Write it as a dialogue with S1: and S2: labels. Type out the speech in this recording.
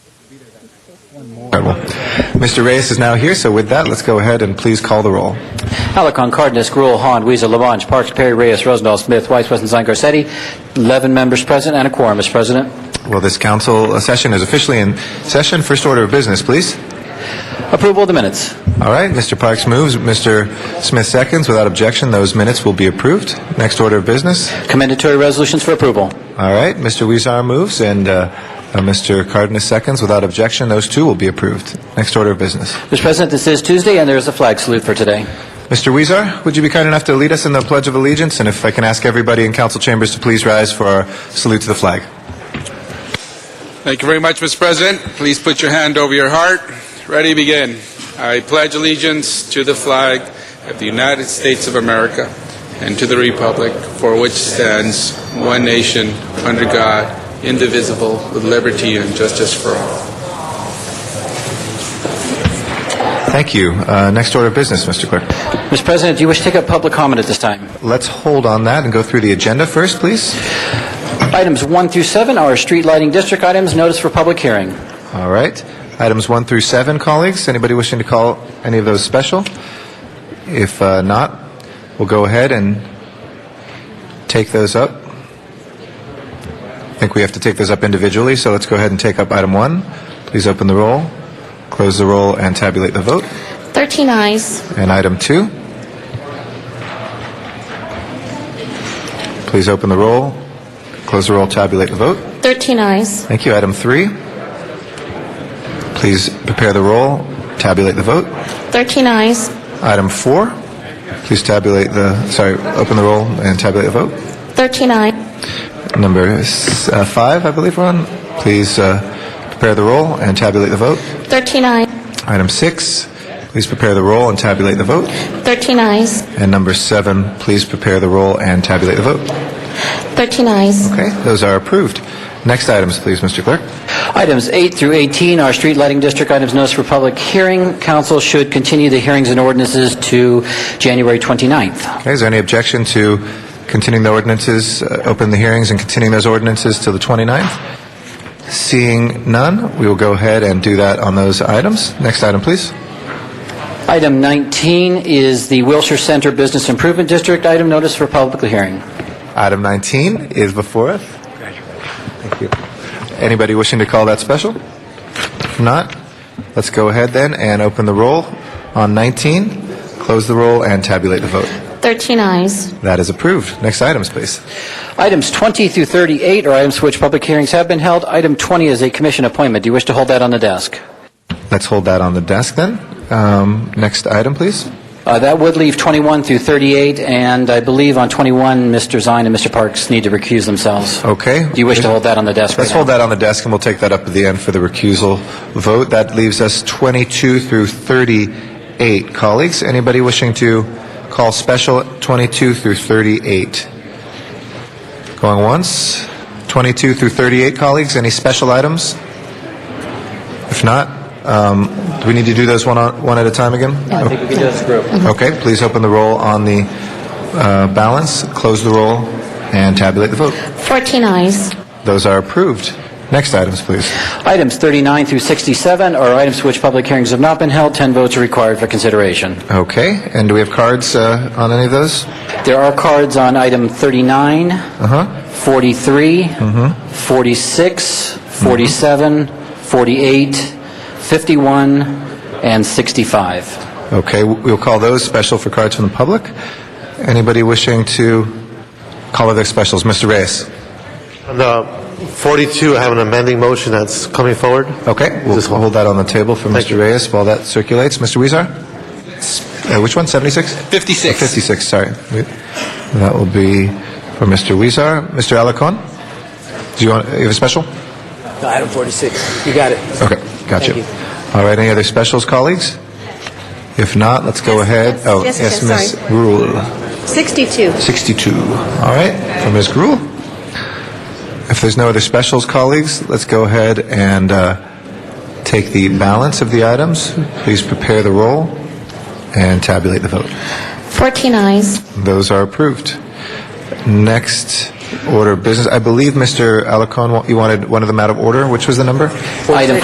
S1: Mr. Reyes is now here, so with that, let's go ahead and please call the roll.
S2: Alarcon, Cardenas, Gruel, Hahn, Weezer, Labange, Parks, Perry, Reyes, Rosendahl, Smith, Weiss, Westenstein, Garcetti, 11 members present and a quorum, Mr. President.
S1: Well, this council uh, session is officially in session. First order of business, please.
S2: Approval of the minutes.
S1: All right, Mr. Parks moves, Mr. Smith seconds. Without objection, those minutes will be approved. Next order of business.
S2: Commendatory resolutions for approval.
S1: All right, Mr. Weezer moves, and uh, uh, Mr. Cardenas seconds. Without objection, those two will be approved. Next order of business.
S2: Mr. President, this is Tuesday, and there is a flag salute for today.
S1: Mr. Weezer, would you be kind enough to lead us in the Pledge of Allegiance? And if I can ask everybody in council chambers to please rise for our salute to the flag.
S3: Thank you very much, Mr. President. Please put your hand over your heart. Ready, begin. I pledge allegiance to the flag of the United States of America and to the republic for which stands one nation, under God, indivisible, with liberty and justice for all.
S1: Thank you. Uh, Next order of business, Mr. Clerk.
S2: Mr. President, do you wish to take up public comment at this time?
S1: Let's hold on that and go through the agenda first, please.
S2: Items 1 through 7 are street lighting district items, notice for public hearing.
S1: All right. Items 1 through 7, colleagues. Anybody wishing to call any of those special? If uh, not, we'll go ahead and take those up. I think we have to take those up individually, so let's go ahead and take up item 1. Please open the roll, close the roll, and tabulate the vote.
S4: 13 eyes.
S1: And item 2. Please open the roll, close the roll, tabulate the vote.
S4: 13 eyes.
S1: Thank you. Item three. Please prepare the roll, tabulate the vote.
S4: 13 eyes.
S1: Item four. Please tabulate the, sorry, open the roll and tabulate the vote.
S4: 13 eyes.
S1: Number s- uh, five, I believe we're on. Please uh, prepare the roll and tabulate the vote.
S4: 13 eyes.
S1: Item six. Please prepare the roll and tabulate the vote.
S4: 13 eyes.
S1: And number seven. Please prepare the roll and tabulate the vote.
S4: 13 eyes.
S1: Okay, those are approved. Next items, please, Mr. Clerk.
S2: Items 8 through 18 are street lighting district items, notice for public hearing. Council should continue the hearings and ordinances to January 29th.
S1: Okay, is there any objection to continuing the ordinances, uh, open the hearings and continuing those ordinances till the 29th? Seeing none, we will go ahead and do that on those items. Next item, please.
S2: Item 19 is the Wilshire Center Business Improvement District item, notice for public hearing.
S1: Item 19 is before us. Thank you. Anybody wishing to call that special? If not, let's go ahead then and open the roll on 19, close the roll, and tabulate the vote.
S4: 13 eyes.
S1: That is approved. Next items, please.
S2: Items 20 through 38 are items for which public hearings have been held. Item 20 is a commission appointment. Do you wish to hold that on the desk?
S1: Let's hold that on the desk then. Um, Next item, please.
S2: Uh, That would leave 21 through 38, and I believe on 21, Mr. Zine and Mr. Parks need to recuse themselves.
S1: Okay.
S2: Do you wish to hold that on the desk?
S1: Let's
S2: right now?
S1: hold that on the desk, and we'll take that up at the end for the recusal vote. That leaves us 22 through 38. Colleagues, anybody wishing to call special 22 through 38? Going once? 22 through 38, colleagues, any special items? If not, um, do we need to do those one on- one at a time again?
S2: I think we can do this group.
S1: Okay, please open the roll on the uh, balance, close the roll, and tabulate the vote.
S4: 14 eyes.
S1: Those are approved. Next items, please.
S2: Items 39 through 67 are items for which public hearings have not been held. 10 votes are required for consideration.
S1: Okay, and do we have cards uh, on any of those?
S2: There are cards on item 39, 43, 46, 47, 48, 51, and 65.
S1: Okay, w- we'll call those special for cards from the public. Anybody wishing to call other specials? Mr. Reyes?
S5: On the 42, I have an amending motion that's coming forward.
S1: Okay, we'll
S5: This one.
S1: hold that on the table for
S5: Thank
S1: Mr.
S5: you.
S1: Reyes while that circulates. Mr. Weezer? S- uh, Which one, 76?
S3: 56.
S1: 56, sorry. We- That will be for Mr. Weezer. Mr. Alacon? Do you want, you have a special?
S6: Item 46. You got it.
S1: Okay, gotcha.
S6: Thank you.
S1: All right, any other specials, colleagues? If not, let's go ahead. Oh,
S7: yes,
S1: yes,
S7: yes,
S1: Ms.
S7: sorry.
S1: Rule,
S7: 62.
S1: 62. All right, from Ms. Gruhl. If there's no other specials, colleagues, let's go ahead and uh, take the balance of the items. Please prepare the roll and tabulate the vote.
S4: 14 eyes.
S1: Those are approved. Next order of business, I believe, Mr. Alacon, you wanted one of them out of order. Which was the number?
S2: Item